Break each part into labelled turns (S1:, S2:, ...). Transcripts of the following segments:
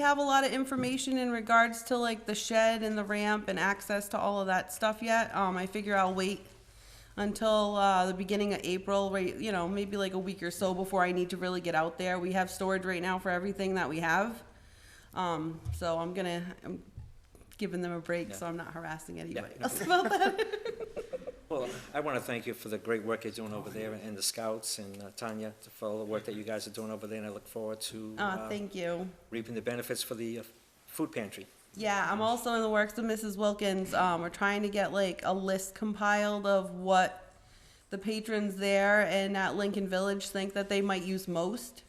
S1: We have a lot of information in regards to like the shed and the ramp and access to all of that stuff yet. Um, I figure I'll wait until, uh, the beginning of April, right, you know, maybe like a week or so before I need to really get out there. We have storage right now for everything that we have. Um, so I'm gonna, I'm giving them a break, so I'm not harassing anybody else about that.
S2: Well, I want to thank you for the great work you're doing over there, and the scouts, and uh, Tanya, for all the work that you guys are doing over there, and I look forward to
S1: Uh,
S2: uh,
S1: thank you.
S2: reaping the benefits for the uh, food pantry.
S1: Yeah, I'm also in the works with Mrs. Wilkins. Um, we're trying to get like a list compiled of what the patrons there and at Lincoln Village think that they might use most.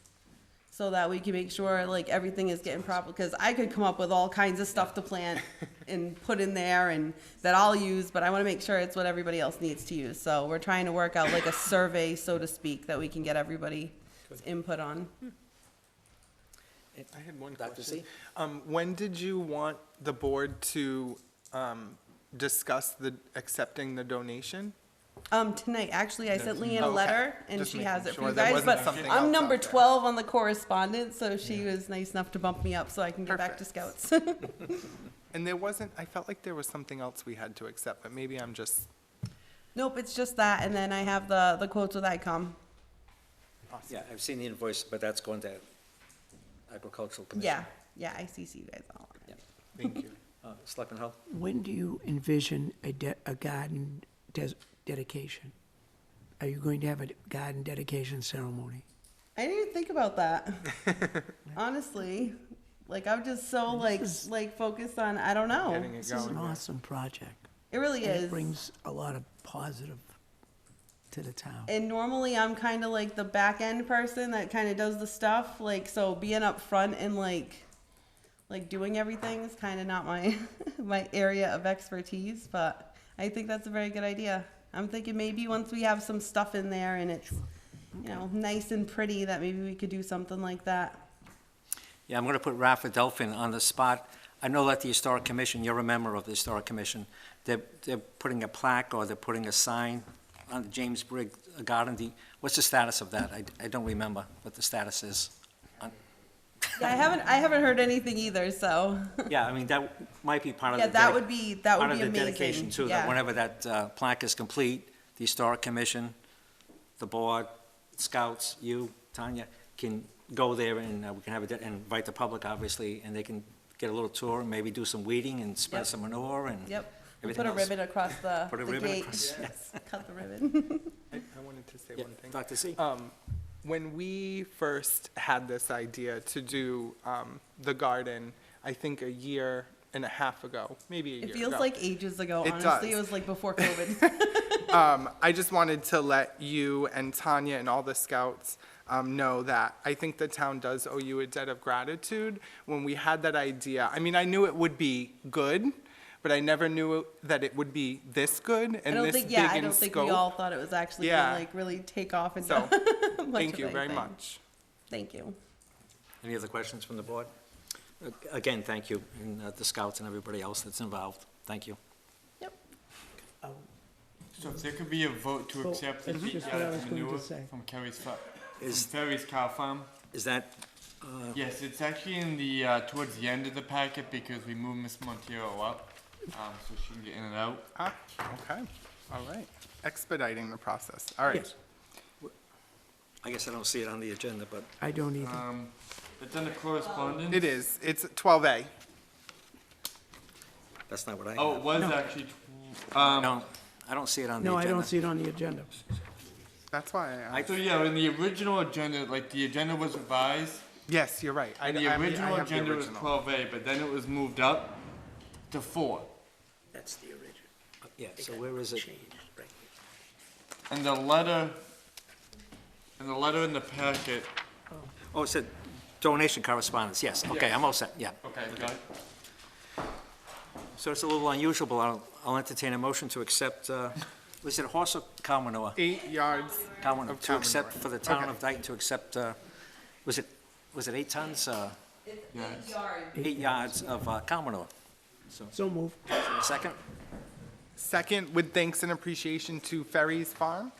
S1: So that we can make sure like everything is getting proper, because I could come up with all kinds of stuff to plant and put in there and that I'll use, but I wanna make sure it's what everybody else needs to use. So we're trying to work out like a survey, so to speak, that we can get everybody's input on.
S3: I had one
S2: Dr.
S3: question.
S2: Z?
S3: Um, when did you want the board to, um, discuss the, accepting the donation?
S1: Um, tonight, actually, I sent Leanne a
S3: Okay.
S1: letter, and
S3: Just
S1: she
S3: making
S1: has it for
S3: sure
S1: you
S3: there
S1: guys,
S3: wasn't
S1: but
S3: something else
S1: I'm
S3: out
S1: number
S3: there.
S1: twelve on the correspondence, so she was nice enough to bump me up so I can get back to scouts.
S3: And there wasn't, I felt like there was something else we had to accept, but maybe I'm just,
S1: Nope, it's just that, and then I have the, the quotes with ICOM.
S2: Yeah, I've seen the invoice, but that's going to agricultural commission.
S1: Yeah, yeah, I CC you guys all on it.
S3: thank you.
S2: Uh, Selectman Hull?
S4: When do you envision a, de- a garden des- dedication? Are you going to have a garden dedication ceremony?
S1: I didn't even think about that. Honestly, like, I'm just so like,
S4: This is-
S1: like focused on, I don't know.
S3: Getting it
S4: This is an
S3: going.
S4: awesome project.
S1: It really
S4: and
S1: is.
S4: It brings a lot of positive to the town.
S1: and normally I'm kind of like the back end person that kind of does the stuff. Like so, being up front and like like doing everything is kind of not my my area of expertise. But I think that's a very good idea. I'm thinking maybe once we have some stuff in there and it's you know nice and pretty, that maybe we could do something like that.
S2: Yeah, I'm going to put Rafa Delphin on the spot. I know that the Historic Commission, you're a member of the Historic Commission, they're, they're putting a plaque or they're putting a sign on the James Brigg Garden. The- What's the status of that? I, I don't remember what the status is.
S1: Yeah, I haven't I haven't heard anything either. So
S2: Yeah, I mean, that might be part of the.
S1: yeah, that
S2: dedic-
S1: would be that would
S2: Part
S1: be
S2: of the
S1: amazing.
S2: dedication too,
S1: yeah.
S2: that whenever that uh, plaque is complete, the Historic Commission, the board, scouts, you, Tanya, can go there and uh, we can have, a de- and invite the public, obviously, and they can get a little tour, maybe do some weeding and spread
S1: Yep.
S2: some manure and.
S1: Yep. We'll
S2: everything
S1: Put a
S2: else.
S1: ribbon across the,
S2: Put a
S1: the
S2: ribbon
S1: gate.
S2: across-
S1: Yes, Cut the ribbon.
S3: I, I wanted to say
S2: Yeah,
S3: one thing.
S2: Dr. Z?
S3: Um, when we first had this idea to do, um, the garden, I think a year and a half ago, maybe a year
S1: It
S3: ago.
S1: feels like ages ago,
S3: It
S1: honestly. It
S3: does.
S1: was like before COVID.
S3: um, I just wanted to let you and Tanya and all the scouts um, know that I think the town does owe you a debt of gratitude. When we had that idea, I mean, I knew it would be good, but I never knew that it would be this good
S1: I
S3: and
S1: don't
S3: this
S1: think,
S3: big
S1: yeah, I
S3: in
S1: don't think we
S3: scope.
S1: all thought it was actually
S3: Yeah.
S1: gonna like really take off and
S3: So,
S1: much
S3: Thank
S1: of
S3: you very
S1: anything.
S3: much.
S1: Thank you.
S2: Any other questions from the board? Uh, Again, thank you, and uh, the scouts and everybody else that's involved, thank you.
S1: Yep.
S5: So if there could be a vote to
S4: Well,
S5: accept the
S4: that's
S5: beet
S4: just what I
S5: yard
S4: was going to
S5: manure
S4: say.
S5: from Kerry's fa- from
S2: Is-
S5: Ferry's cow farm.
S2: Is that,
S3: Oh.
S5: Yes, it's actually in the, uh, towards the end of the packet because we moved Miss Montero up, um, so she can get in and out.
S3: Ah, okay, all right. Expediting the process, all right.
S4: Yes.
S2: I guess I don't see it on the agenda, but
S4: I don't either.
S5: Um, it's under correspondence.
S3: It is, it's 12A.
S2: that's not what I
S5: Oh,
S2: have.
S5: it was actually, tw- um,
S2: No, I don't see it on the
S4: No, I
S2: agenda.
S4: don't see it on the agenda.
S3: That's why I asked.
S5: so yeah, in the original agenda, like, the agenda was revised,
S3: Yes, you're right. I-
S5: and
S3: I- I
S5: the
S3: have
S5: original agenda was
S3: original.
S5: twelve A, but then it was moved up to four.
S4: That's the original.
S2: Yeah, so where is it?
S5: And the letter, and the letter in the packet,
S2: Oh, it said donation correspondence, yes, okay, I'm all set, yeah.
S5: okay, got it?
S2: So it's a little unusual, but I'll, I'll entertain a motion to accept, uh, was it horse or cow manure?
S3: Eight yards.
S2: Cow manure,
S3: Of cow
S2: to accept,
S3: manure.
S2: for the town
S3: Okay.
S2: of Dayton to accept, uh, was it, was it eight tons, uh,
S5: Yes.
S2: eight yards of uh, cow manure?
S4: So moved.
S2: Second,
S3: Second, with thanks and appreciation to Ferry's Farm.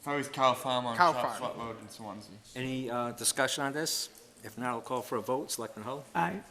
S5: Ferry's cow farm on
S3: Cow
S5: Chop
S3: farm.
S5: Road in Swansea.
S2: any uh, discussion on this? If not, I'll call for a vote. Selectman Hull?
S4: Aye.